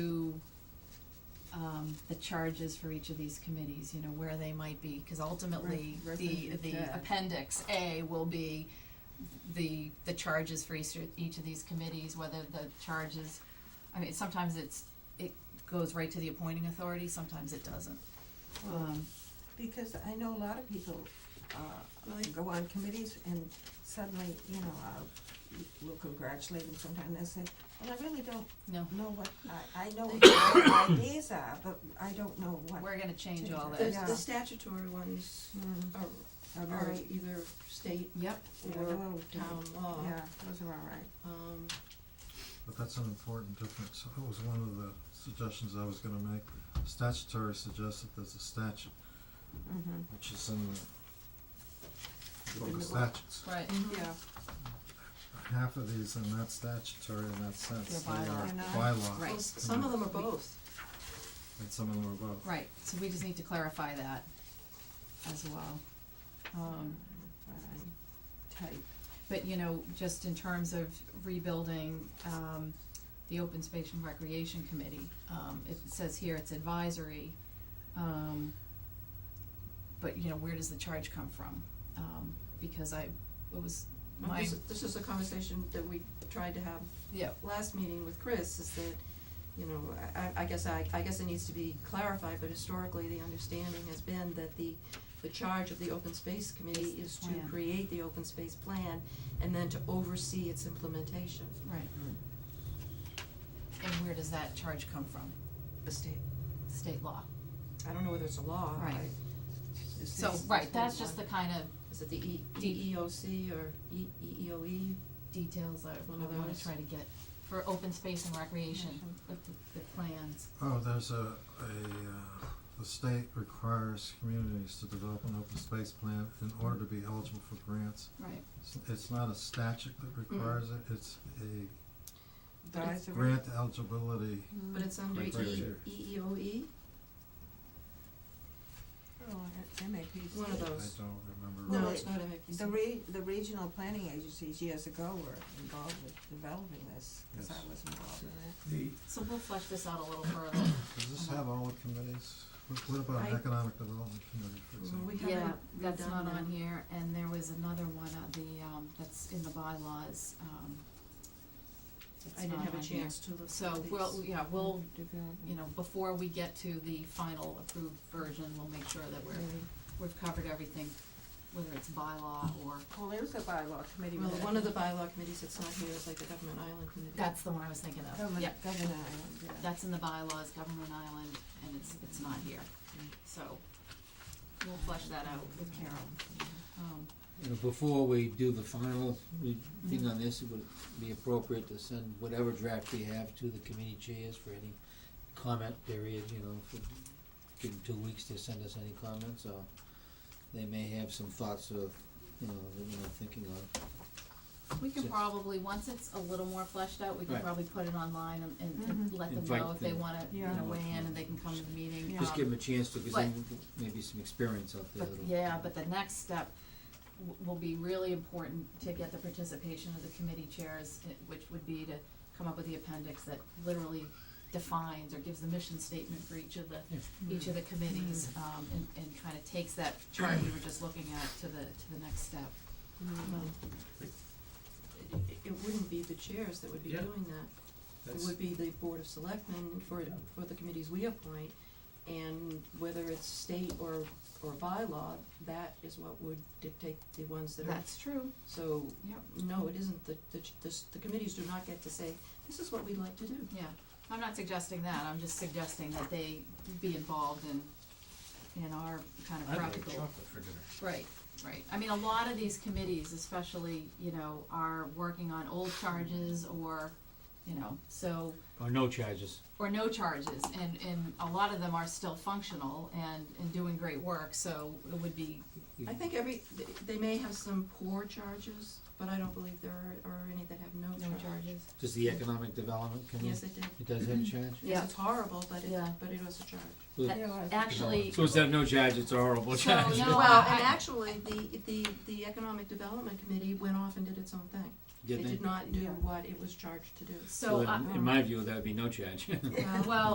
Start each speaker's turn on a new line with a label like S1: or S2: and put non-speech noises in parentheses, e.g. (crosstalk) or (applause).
S1: um, the charges for each of these committees, you know, where they might be, cause ultimately,
S2: Re-
S1: the,
S2: references
S1: the
S2: to-
S1: appendix A will be the, the charges for each, each of these committees, whether the charges, I mean, sometimes it's, it goes right to the appointing authority, sometimes it doesn't. Um,
S2: Uh, Because I know a lot of people, uh, go on committees and suddenly, you know, I'll, we'll congratulate them sometime and say, well, I really don't
S1: no,
S2: know what, I, I know what my ideas are, but I don't know what.
S1: we're gonna change all
S2: Change
S1: that.
S2: it.
S3: The,
S2: Yeah.
S3: the statutory ones
S2: Mm,
S3: are,
S2: are
S3: are
S2: very-
S3: either state
S1: Yep,
S2: yeah,
S3: or
S2: they're okay.
S3: town law.
S2: Yeah, those are all right.
S3: Um,
S4: But that's an important difference. That was one of the suggestions I was gonna make. Statutory suggests that there's a statute,
S2: Mm-hmm.
S4: which is in the book
S2: In
S4: of
S2: the-
S4: statutes.
S1: right,
S2: Mm-hmm.
S3: yeah,
S4: Half of these are not statutory in that sense.
S1: They're
S4: They are
S2: bylaw. They're not.
S4: bylaw,
S1: Right.
S3: well, s- some of them are both,
S4: and some of them are both.
S1: right, so we just need to clarify that as well. Um,
S2: Type.
S1: But, you know, just in terms of rebuilding, um, the Open Space and Recreation Committee, um, it says here it's advisory. Um, but, you know, where does the charge come from? Um, because I, it was
S3: And
S1: my,
S3: this, this is a conversation that we tried to have
S1: yeah,
S3: last meeting with Chris, is that, you know, I- I, I guess I, I guess it needs to be clarified, but historically, the understanding has been that the, the charge of the open space committee
S1: Is
S3: is
S1: the
S3: to
S1: plan.
S3: create the open space plan and then to oversee its implementation.
S1: right. And where does that charge come from?
S3: The state,
S1: State law.
S3: I don't know whether it's a law, I-
S1: Right.
S3: is
S1: So,
S3: this-
S1: right,
S3: is
S1: that's
S3: this
S1: just
S3: one-
S1: the kind of
S3: Is it the E,
S1: D-
S3: EEOC or E, EEOE?
S1: details I
S3: One of
S1: I wanna
S3: those.
S1: try to get for Open Space and Recreation, with the, the plans.
S4: Oh, there's a, a, uh, the state requires communities to develop an open space plan in order to be eligible for grants.
S1: Right.
S4: It's, it's not a statute that requires it,
S3: Mm.
S4: it's a
S2: Advisory.
S4: grant eligibility.
S3: But it's under
S4: Right, right,
S3: E,
S4: right.
S3: EEOE,
S2: Oh, that- that may be-
S3: one of
S4: I
S3: those.
S4: don't remember.
S2: Well,
S3: No,
S2: it-
S3: it's not MAPC.
S2: The re- the regional planning agencies years ago were involved with developing this, cause I
S4: Yes.
S2: was involved in it.
S4: The,
S1: So we'll flesh this out a little further.
S4: Does this have all the committees? What, what about
S3: I-
S4: an economic development committee, for
S3: Well,
S4: example?
S3: we
S1: Yeah,
S3: haven't
S1: that's
S3: redone
S1: not
S3: them.
S1: on here, and there was another one of the, um, that's in the bylaws, um,
S3: I didn't have a chance to look at these. Mm-hmm.
S1: So, we'll, yeah, we'll,
S2: Development.
S1: you know, before we get to the final approved version, we'll make sure that we're,
S2: Mhm.
S1: we've covered everything, whether it's bylaw or,
S2: Well, there's a bylaw committee.
S3: Well,
S2: with
S3: one of the bylaw committees that's not here is like the Government Island Committee.
S1: that's the one I was thinking
S3: Oh,
S1: of, yeah.
S2: Government, governor, island, yeah.
S1: That's in the bylaws, Government Island, and it's, it's not here,
S3: Mm-hmm.
S1: so we'll flesh that out with Carol. Um,
S5: You know, before we do the final re- thing on this, it would be appropriate to send whatever draft we have to the committee chairs for any comment period, you know, for, give them two weeks to send us any comments, or they may have some thoughts of, you know, that we're not thinking of.
S1: We can
S5: So-
S1: probably, once it's a little more fleshed out, we can
S5: Right.
S1: probably put it online and, and, and let them
S5: Invite
S1: know if they
S5: them.
S1: wanna, you
S2: Yeah.
S1: know, weigh in and they can come to the meeting.
S2: Yeah.
S5: Just give
S1: Um,
S5: them a chance to, cause then maybe some experience out there
S1: But,
S5: that'll.
S1: yeah, but the next step w- will be really important to get the participation of the committee chairs, eh, which would be to come up with the appendix that literally defines or gives the mission statement for each of the each of the committees, um, and, and kind of takes that chart we were just looking at to the, to the next step.
S2: Mm-hmm.
S3: Well, It, it wouldn't be the chairs that would be
S6: Yeah.
S3: doing that. It would be the Board of Selectmen for, for the committees we appoint. And whether it's state or, or bylaw, that is what would dictate the ones that are.
S1: That's true.
S3: So,
S1: Yep.
S3: no, it isn't. The, the, ch- the, s- the committees do not get to say, this is what we'd like to do.
S1: Yeah, I'm not suggesting that, I'm just suggesting that they be involved in, in our kind of practical.
S6: for dinner.
S1: Right, right. I mean, a lot of these committees especially, you know, are working on old charges or, you know, so,
S5: Or no charges.
S1: or no charges, and, and a lot of them are still functional and, and doing great work, so it would be,
S3: I think every, th- they may have some poor charges, but I don't believe there are, are any that have no
S1: no
S3: charge.
S1: charges.
S5: Does the economic development committee,
S3: Yes, it did.
S5: it does have a charge?
S1: Yeah.
S3: Yes, it's horrible, but it,
S1: Yeah.
S3: but it was a charge.
S5: Well,
S1: That-
S2: There was-
S1: Actually,
S5: So instead of no charge, it's a horrible
S1: So,
S5: charge.
S1: No,
S3: Well,
S1: I-
S3: and actually, the, the, the Economic Development Committee went off and did its own thing.
S5: Didn't
S3: It
S5: they?
S3: did not do
S2: Yeah.
S3: what it was charged to do.
S1: so,
S5: Well,
S1: uh,
S5: (laughs) in- in my view, that would be no charge.
S3: Well,
S1: well,